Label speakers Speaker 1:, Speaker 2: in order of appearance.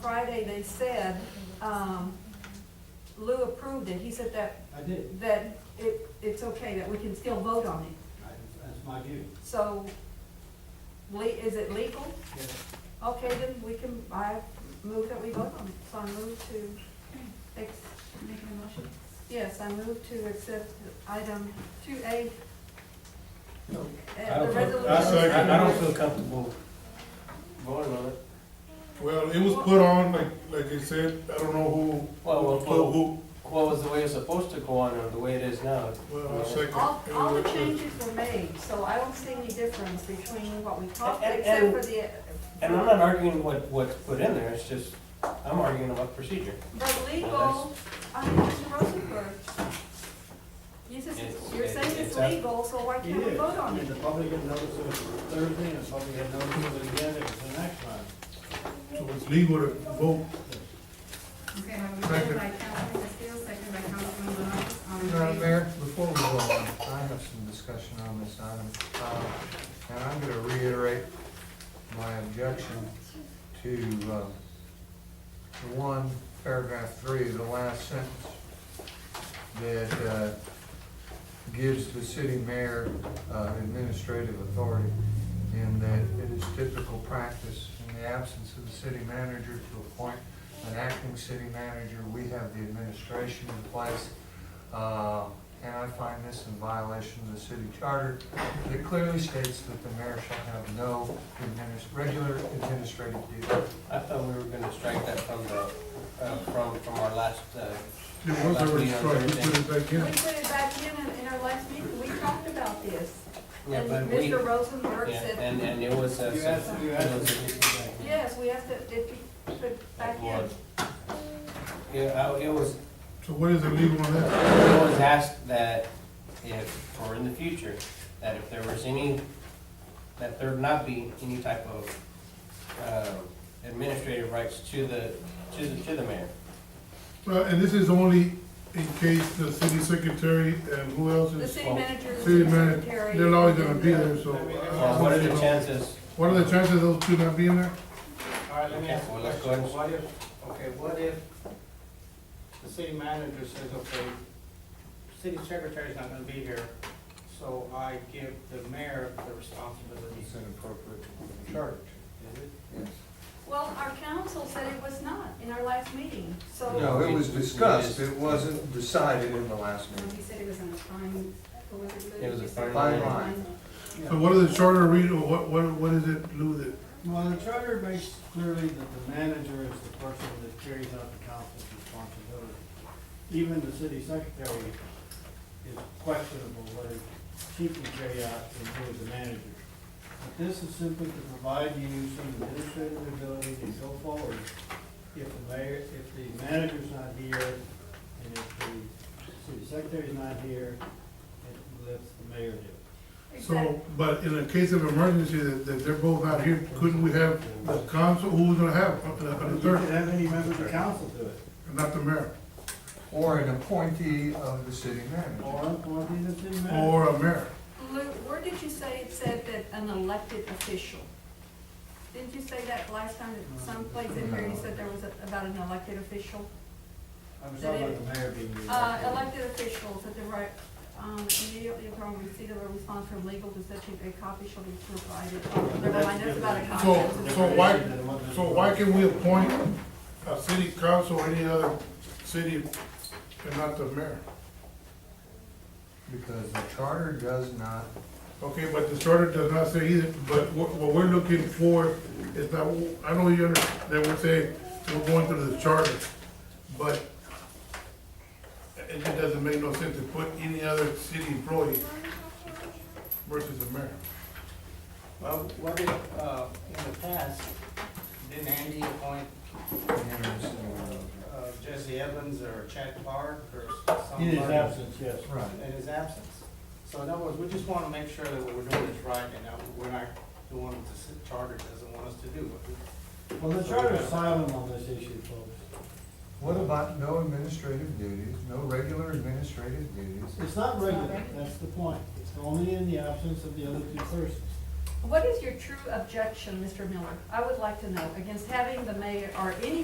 Speaker 1: Friday, they said, um, Lou approved it, he said that,
Speaker 2: I did.
Speaker 1: that it, it's okay, that we can still vote on it.
Speaker 2: I- That's my view.
Speaker 1: So, le, is it legal?
Speaker 2: Yes.
Speaker 1: Okay, then we can, I move that we vote on it, so I move to, ex-
Speaker 3: Making a motion?
Speaker 1: yes, I move to accept item two A.
Speaker 4: I
Speaker 1: Uh, the
Speaker 4: don't feel-
Speaker 1: resolution.
Speaker 4: I
Speaker 5: second.
Speaker 4: I don't feel comfortable voting on it.
Speaker 5: Well, it was put on, like, like you said, I don't know who,
Speaker 4: Well, well,
Speaker 5: who,
Speaker 4: well,
Speaker 5: who,
Speaker 4: what was the way it's supposed to go on, or the way it is now?
Speaker 5: well, I second.
Speaker 1: All, all the changes were made, so I don't see any difference between what we talked,
Speaker 4: And-
Speaker 1: except
Speaker 4: and-
Speaker 1: for the.
Speaker 4: And I'm not arguing what, what's put in there, it's just, I'm arguing about procedure.
Speaker 1: The legal, I mean, Mr. Rosenberg, you just,
Speaker 4: It's-
Speaker 1: you're saying it's
Speaker 4: it's up-
Speaker 1: legal, so why
Speaker 2: It
Speaker 1: can't we
Speaker 2: is.
Speaker 1: vote
Speaker 2: I
Speaker 1: on
Speaker 2: mean,
Speaker 1: it?
Speaker 2: the public had notice of it Thursday, and the public had notice of it again, it was the next one.
Speaker 5: So it's legal to vote,
Speaker 3: Okay, I have a motion by Councilman Castillo, second by Councilman Morales, all in favor?
Speaker 6: Madam Mayor, before we go on, I have some discussion on this item. Uh, And I'm gonna reiterate my objection to, uh, one, paragraph three, the last sentence, that, uh, gives the city mayor uh, administrative authority in that it is typical practice in the absence of the city manager to appoint an acting city manager. We have the administration in place. Uh, And I find this in violation of the city charter that clearly states that the mayor shall have no adminis- regular administrative duties.
Speaker 4: I thought we were gonna strike that from the, uh, from, from our last, uh,
Speaker 5: it was already struck, you put it back
Speaker 1: We
Speaker 5: in.
Speaker 1: put it back in, in, in our last meeting, we talked about this,
Speaker 4: yeah,
Speaker 1: and
Speaker 4: but we,
Speaker 1: Mr. Rosenberg
Speaker 4: yeah,
Speaker 1: said,
Speaker 4: and, and it was, uh,
Speaker 2: You asked,
Speaker 4: said-
Speaker 2: you
Speaker 4: it was-
Speaker 2: asked.
Speaker 1: yes, we have to, it, be put back in.
Speaker 4: It was. yeah, I- it was,
Speaker 5: So what is illegal on that?
Speaker 4: I was asked that if, or in the future, that if there was any, that there not be any type of um, administrative rights to the, to the, to the mayor.
Speaker 5: Well, and this is only in case the city secretary and who else
Speaker 1: The
Speaker 5: is,
Speaker 1: city manager, the
Speaker 5: city
Speaker 1: city
Speaker 5: manager,
Speaker 1: secretary.
Speaker 5: they're always gonna
Speaker 1: and
Speaker 5: be
Speaker 1: the-
Speaker 5: there, so.
Speaker 4: Well, Uh, what are the chances?
Speaker 5: What are the chances those two not being there?
Speaker 2: All right, let me ask you
Speaker 4: Well,
Speaker 2: a
Speaker 4: let's go
Speaker 2: question.
Speaker 4: ahead.
Speaker 2: What if, okay, what if the city manager says, okay, city secretary's not gonna be here, so I give the mayor the responsibility
Speaker 4: It's inappropriate.
Speaker 2: of charge, is it?
Speaker 1: Well, our council said it was not in our last meeting, so.
Speaker 4: No, it was discussed. It wasn't
Speaker 6: decided in the last
Speaker 3: Um, He said it was on a fine, what was it? Lou?
Speaker 4: It was a
Speaker 3: You said
Speaker 4: fine
Speaker 3: it was a
Speaker 6: line.
Speaker 3: fine.
Speaker 5: So what are the charter read, or what, what, what is it, Lou, that,
Speaker 2: Well, the charter makes clearly that the manager is the person that carries out the council's responsibility. Even the city secretary is questionable whether she can carry out and who is the manager. But this is simply to provide you some administrative ability to go forward if the mayor, if the manager's not here, and if the city secretary's not here, it lets the mayor do it.
Speaker 1: Exactly.
Speaker 5: so, but in a case of emergency, that, that they're both out here, couldn't we have the council, who was gonna have, uh,
Speaker 2: But
Speaker 5: the
Speaker 2: you could
Speaker 5: third,
Speaker 2: have any member of the council do it.
Speaker 5: not the mayor?
Speaker 6: Or an appointee of the city manager.
Speaker 2: Or, or be the city manager.
Speaker 5: Or a mayor.
Speaker 1: Lou, where did you say it said that an elected official? Didn't you say that last time, that someplace in here you said there was a- about an elected official?
Speaker 2: I'm talking about the mayor being. the
Speaker 1: Uh, elected officials at the right, um, immediately upon receipt of a response from legal to such a a copy shall be provided. Oh, Never mind, that's about a copy.
Speaker 5: So,
Speaker 1: That's a-
Speaker 5: so why, so why can we appoint a city council or any other city and not the mayor?
Speaker 6: Because the charter does not,
Speaker 5: Okay, but the charter does not say either, but what, what we're looking for is that, I know you understand, that we're saying, we're going through the charter, but it just doesn't make no sense to put any other city employee versus the mayor.
Speaker 2: Well, what if, uh, in the past, didn't Andy appoint, uh, Jesse Evans or Chad Clark or somebody? In his absence, yes.
Speaker 6: right.
Speaker 2: In his absence. So in other words, we just wanna make sure that what we're doing is right and that we're not doing what the ci- charter doesn't want us to do. Well, the charter is silent on this issue, folks.
Speaker 6: What about no administrative duties, no regular administrative duties?
Speaker 2: It's not regular, that's the point. It's only in the absence of the other two persons.
Speaker 1: What is your true objection, Mr. Miller? I would like to know, against having the mayor or any